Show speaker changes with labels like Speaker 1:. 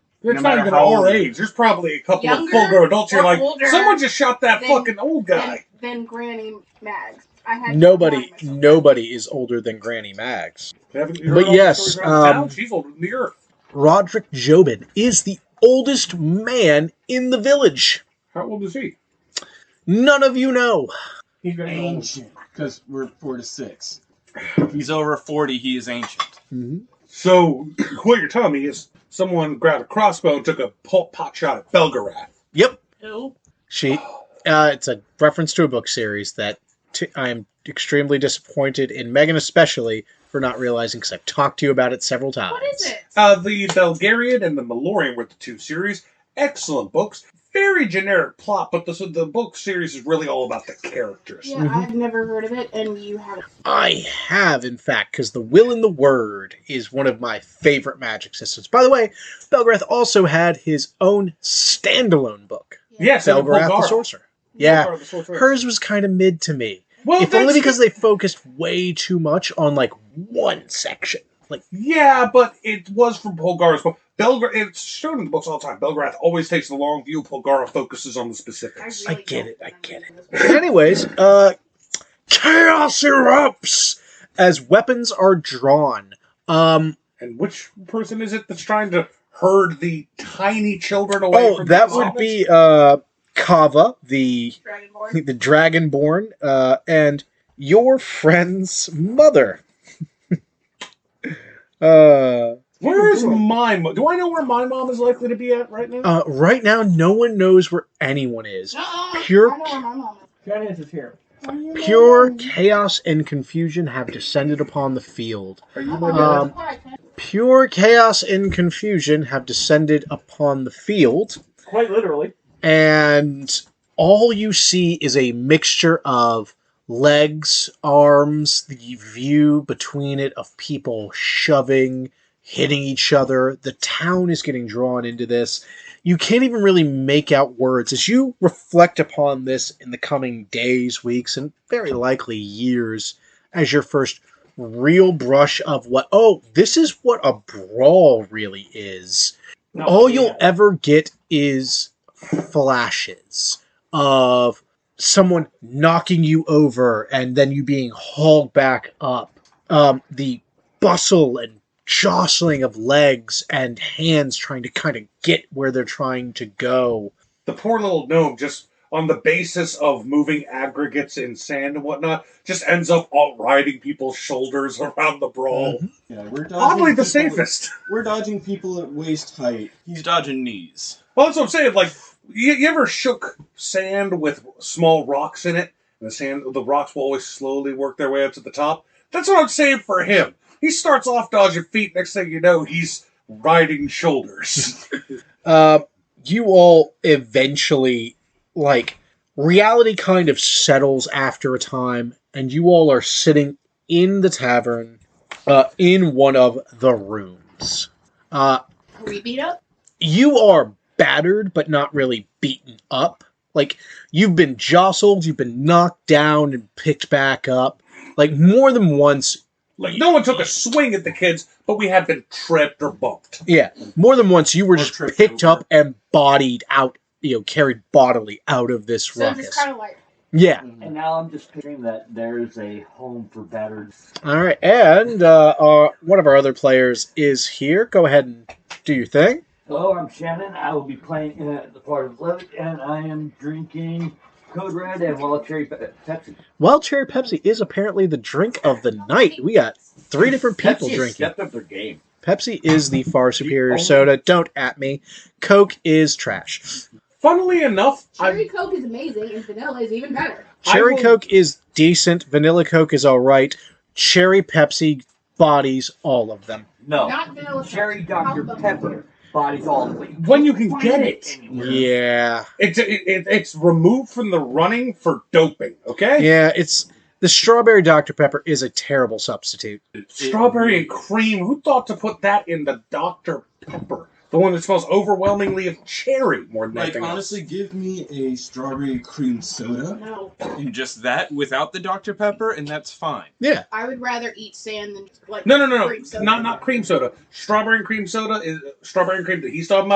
Speaker 1: It's
Speaker 2: No
Speaker 1: not
Speaker 2: matter
Speaker 1: even
Speaker 2: how
Speaker 1: our
Speaker 2: old-
Speaker 1: age. There's probably a couple of
Speaker 3: Younger
Speaker 1: full grown adults. You're
Speaker 3: or
Speaker 1: like,
Speaker 3: older
Speaker 1: someone just shot that
Speaker 3: than-
Speaker 1: fucking old guy.
Speaker 3: Than Granny Mags. I had to
Speaker 4: Nobody,
Speaker 3: remind myself.
Speaker 4: nobody is older than Granny Mags.
Speaker 1: Haven't you
Speaker 4: But
Speaker 1: heard all the
Speaker 4: yes,
Speaker 1: stories around
Speaker 4: um,
Speaker 1: town? she's older than the earth.
Speaker 4: Roderick Jobin is the oldest man in the village.
Speaker 1: How old is he?
Speaker 4: None of you know.
Speaker 1: He's very old.
Speaker 2: Ancient. Because we're four to six. If he's over 40, he is ancient.
Speaker 1: So what you're telling me is someone grabbed a crossbow and took a po- pot shot at Belgarath.
Speaker 4: Yep.
Speaker 3: Who?
Speaker 4: She. Uh, it's a reference to a book series that t- I'm extremely disappointed in Megan, especially for not realizing because I've talked to you about it several times.
Speaker 3: What is it?
Speaker 1: Uh, the Belgarian and the Malorian were the two series. Excellent books. Very generic plot, but the, the book series is really all about the characters.
Speaker 3: Yeah,
Speaker 4: Mhm.
Speaker 3: I've never heard of it, and you haven't.
Speaker 4: I have, in fact, because the will and the word is one of my favorite magic systems. By the way, Belgrath also had his own standalone book,
Speaker 1: Yes, and
Speaker 4: Belgrath the
Speaker 1: Bulgara.
Speaker 4: Sorcerer. Yeah,
Speaker 1: Bulgara the Sorcerer.
Speaker 4: hers was kind of mid to me,
Speaker 1: Well,
Speaker 4: if only
Speaker 1: that's-
Speaker 4: because they focused way too much on like one section. Like,
Speaker 1: Yeah, but it was from Polgar's book. Belgra- it's shown in the books all the time. Belgrath always takes the long view. Polgar focuses on the specifics.
Speaker 4: I get it, I get anyways, uh, chaos erupts as weapons are drawn. Um,
Speaker 1: And which person is it that's trying to herd the tiny children away?
Speaker 4: oh,
Speaker 1: from
Speaker 4: that
Speaker 1: the
Speaker 4: would
Speaker 1: zombies?
Speaker 4: be uh, Kava, the I
Speaker 3: Dragonborn.
Speaker 4: think the Dragonborn, uh, and your friend's mother. uh,
Speaker 1: Where is my mom? Do I know where my mom is likely to be at right now?
Speaker 4: uh, right now, no one knows where anyone is.
Speaker 3: Uh-uh,
Speaker 4: Pure-
Speaker 3: I know where my mom is.
Speaker 5: Janice is here.
Speaker 4: Pure chaos and confusion have descended upon the field.
Speaker 1: Are you
Speaker 3: Oh,
Speaker 1: my mom?
Speaker 3: my God,
Speaker 4: Um,
Speaker 3: that's why I can't-
Speaker 4: Pure chaos and confusion have descended upon the field.
Speaker 5: Quite literally.
Speaker 4: and all you see is a mixture of legs, arms, the view between it of people shoving, hitting each other. The town is getting drawn into this. You can't even really make out words. As you reflect upon this in the coming days, weeks, and very likely years, as your first real brush of what, oh, this is what a brawl really is
Speaker 5: No,
Speaker 4: all
Speaker 5: yeah.
Speaker 4: Oh, you'll ever get is flashes of someone knocking you over and then you being hauled back up. Um, the bustle and jostling of legs and hands trying to kind of get where they're trying to go.
Speaker 1: the poor little gnome just on the basis of moving aggregates in sand and whatnot just ends up all riding people's shoulders around the brawl.
Speaker 4: Uh-huh.
Speaker 2: Yeah, we're dodging
Speaker 1: Oddly, the
Speaker 2: people-
Speaker 1: safest.
Speaker 2: We're dodging people at waist height. He's dodging knees.
Speaker 1: Well, that's what I'm saying. Like, you, you ever shook sand with small rocks in it, and the sand, the rocks will always slowly work their way up to the top. That's what I'm saying for him. He starts off dodging feet. Next thing you know, he's riding shoulders.
Speaker 4: Uh, you all eventually, like, reality kind of settles after a time, and you all are sitting in the tavern uh, in one of the rooms. Uh,
Speaker 3: Are we beat up?
Speaker 4: you are battered, but not really beaten up. Like, you've been jostled, you've been knocked down and picked back up. Like, more than once,
Speaker 1: like, no one took a swing at the kids, but we have been tripped or bumped.
Speaker 4: Yeah, more than once you were
Speaker 2: Or
Speaker 4: just
Speaker 2: tripped
Speaker 4: picked
Speaker 2: over.
Speaker 4: up and bodied out, you know, carried bodily out of this
Speaker 3: So
Speaker 4: ruckus.
Speaker 3: just kind of like
Speaker 4: yeah.
Speaker 2: Mm-hmm.
Speaker 5: And now I'm just picturing that there's a home for battered.
Speaker 4: All right, and uh, our, one of our other players is here. Go ahead and do your thing.
Speaker 5: Hello, I'm Shannon. I will be playing uh, the part of Levitt, and I am drinking Code Red and Wild Cherry Pe- Pepsi.
Speaker 4: Wild cherry Pepsi is apparently the drink of the night. We got three different people
Speaker 5: Pepsi has
Speaker 4: drinking.
Speaker 5: stepped up their game.
Speaker 4: Pepsi is the far superior
Speaker 5: only-
Speaker 4: soda. Don't at me. Coke is trash.
Speaker 1: Funnily enough,
Speaker 3: cherry coke is amazing, and vanilla is even better.
Speaker 1: I
Speaker 4: Cherry
Speaker 1: will-
Speaker 4: Coke is decent. Vanilla Coke is all right. Cherry Pepsi bodies all of them.
Speaker 5: No.
Speaker 3: Not vanilla.
Speaker 5: Oh, Cherry
Speaker 3: Coke.
Speaker 5: Dr.
Speaker 3: Alpha.
Speaker 5: Pepper. Bodies all the way.
Speaker 1: When you can
Speaker 5: Find
Speaker 1: get it.
Speaker 5: anywhere.
Speaker 4: Yeah.
Speaker 1: It's it, it, it's removed from the running for doping. Okay,
Speaker 4: Yeah, it's the strawberry Dr Pepper is a terrible substitute.
Speaker 1: strawberry and cream. Who thought to put that in the Dr Pepper, the one that smells overwhelmingly of cherry more than
Speaker 2: Like,
Speaker 1: anything else?
Speaker 2: honestly, give me a strawberry cream soda
Speaker 3: No,
Speaker 2: and just
Speaker 6: just that without the Dr. Pepper, and that's fine.
Speaker 4: Yeah.
Speaker 3: I would rather eat sand than like.
Speaker 1: No, no, no, no.
Speaker 3: cream soda.
Speaker 1: Not not cream soda. uh, Strawberry and cream soda is strawberry and cream that he's talking about.